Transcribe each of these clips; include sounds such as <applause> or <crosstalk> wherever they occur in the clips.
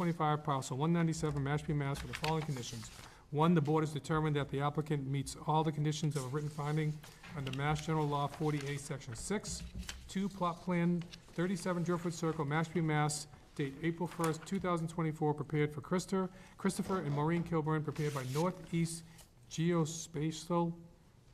twenty-five, parcel one ninety-seven, Mashpee, Mass, with the following conditions. One, the board has determined that the applicant meets all the conditions of a written finding under Mass General Law forty-eight, section six. Two, plot plan thirty-seven Driftwood Circle, Mashpee, Mass, date April first, two thousand twenty-four, prepared for Christopher, Christopher and Maureen Kilburn, prepared by Northeast Geospatial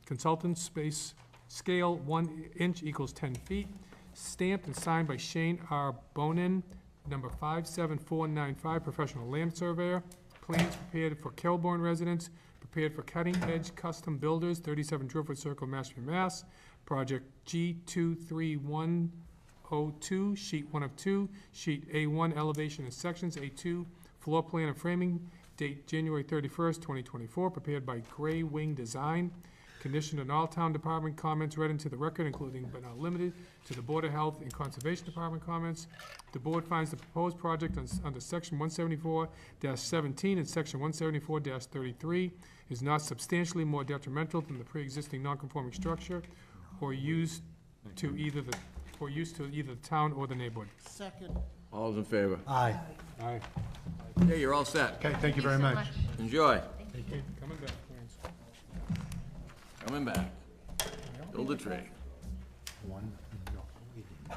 Consultants, space, scale one inch equals ten feet, stamped and signed by Shane R. Bonin, number 57495, professional land surveyor. Plans prepared for Kelborn residents, prepared for Cutting Edge Custom Builders, 37 Driftwood Circle, Mashpee, Mass. Project G23102, sheet 1 of 2, sheet A1, elevation and sections, A2, floor plan and framing, date January 31st, 2024, prepared by Gray Wing Design. Conditioned on all town department comments read into the record, including but not limited to the Board of Health and Conservation Department comments. The board finds the proposed project on- under section one seventy-four seventeen and section one seventy-four thirty-three is not substantially more detrimental than the pre-existing non-conforming structure or used to either the, or used to either the town or the neighborhood. Second. All's in favor? Aye. Aye. Yeah, you're all set. Okay, thank you very much. Enjoy. Coming back, Clarence. Coming back. Build a tree. One, no.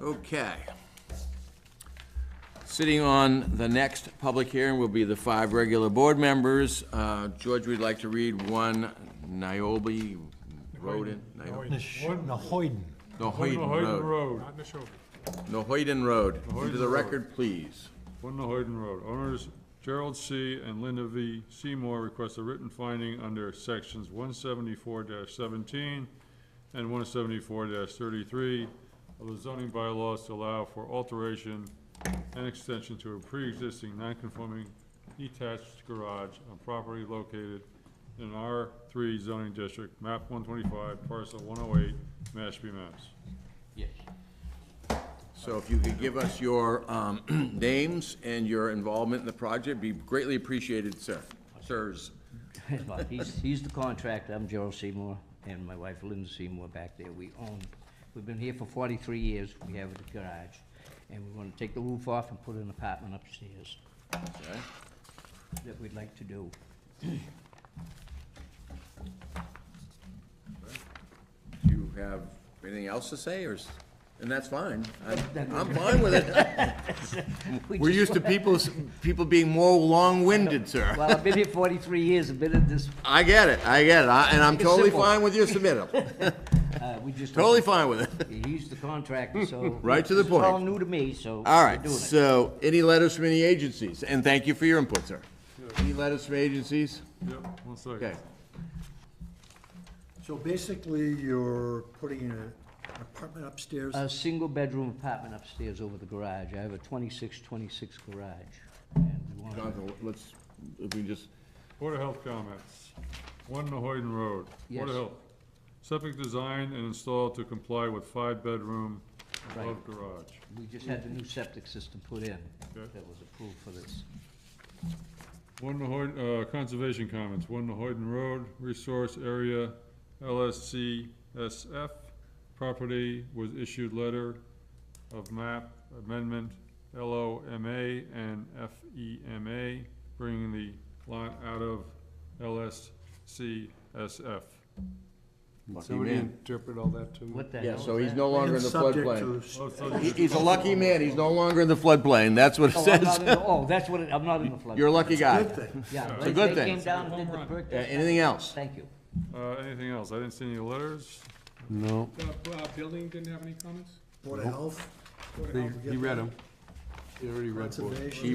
Okay. Sitting on the next public hearing will be the five regular board members. Uh, George, we'd like to read one Niobe Road, in- Nio- Nash- Nahoyden. Nohoyden Road. Not in the show. Nohoyden Road. Into Nohoyden the Road. record, please. One Nahoyden Road, owners Gerald C. and Linda V. Seymour request a written finding under sections one seventy-four seventeen and one seventy-four thirty-three of the zoning bylaws to allow for alteration and extension to a pre-existing non-conforming detached garage on property located in an R three zoning district, map one twenty-five, parcel one oh eight, Mashpee, Mass. <laughs> So if you could give us your um, <clears throat> names and your involvement in the project, be greatly appreciated, sir. Sirs. He's, he's the contractor, I'm Gerald Seymour, and my wife Linda Seymour back there, we own, we've been here for forty-three years, we have a garage, and we wanna take the roof off and put an apartment upstairs Okay. that we'd like to do. Do you have anything else to say, or, s- and that's fine. <laughs> I'm, I'm fine with it. We We're just used to want- people, s- people being more long-winded, sir. <laughs> Well, I've been here forty-three years, I've been in this, I get it, I get it, I- and I'm It's totally simple. fine with your <laughs> submittal. uh, we just. Totally fine with it. <laughs> He's the contractor, so. <laughs> Right to the This is all point. new to me, so. All we're right, doing it. so, any letters from any agencies? And thank you for your input, sir. Any letters from agencies? Yep, one second. Okay. So basically, you're putting in a- an apartment upstairs? A single-bedroom apartment upstairs over the garage, I have a 26-26 garage, and we want. Jonathan, let's, if we just, Board of Health comments. One Nahoyden Road. Board Yes. of Health. Septic designed and installed to comply with five-bedroom above garage. We just had the new septic system put in Okay. that was approved for this. One Nahoyden, uh, conservation comments. One Nahoyden Road, resource area, LSCSF. Property was issued letter of map amendment, LOMA and FEMA, bringing the lot out of LSCSF. lucky man. interpret all that to me. What the hell Yeah, is so he's that? no longer in the floodplain. Subject Oh, to, so He- He's a lucky man, he's no longer in the floodplain, that's what it Oh, I'm not in says. the- Oh, that's what, it- I'm not in the flood. You're a lucky guy. good thing. Yeah, a they- good they thing. came down and did the perk Uh, Anything else? Thank you. Uh, anything else? I didn't see any letters. uh, Building didn't have any comments? Board of Health? Board of Health? He read them. You already read both. Conservation. She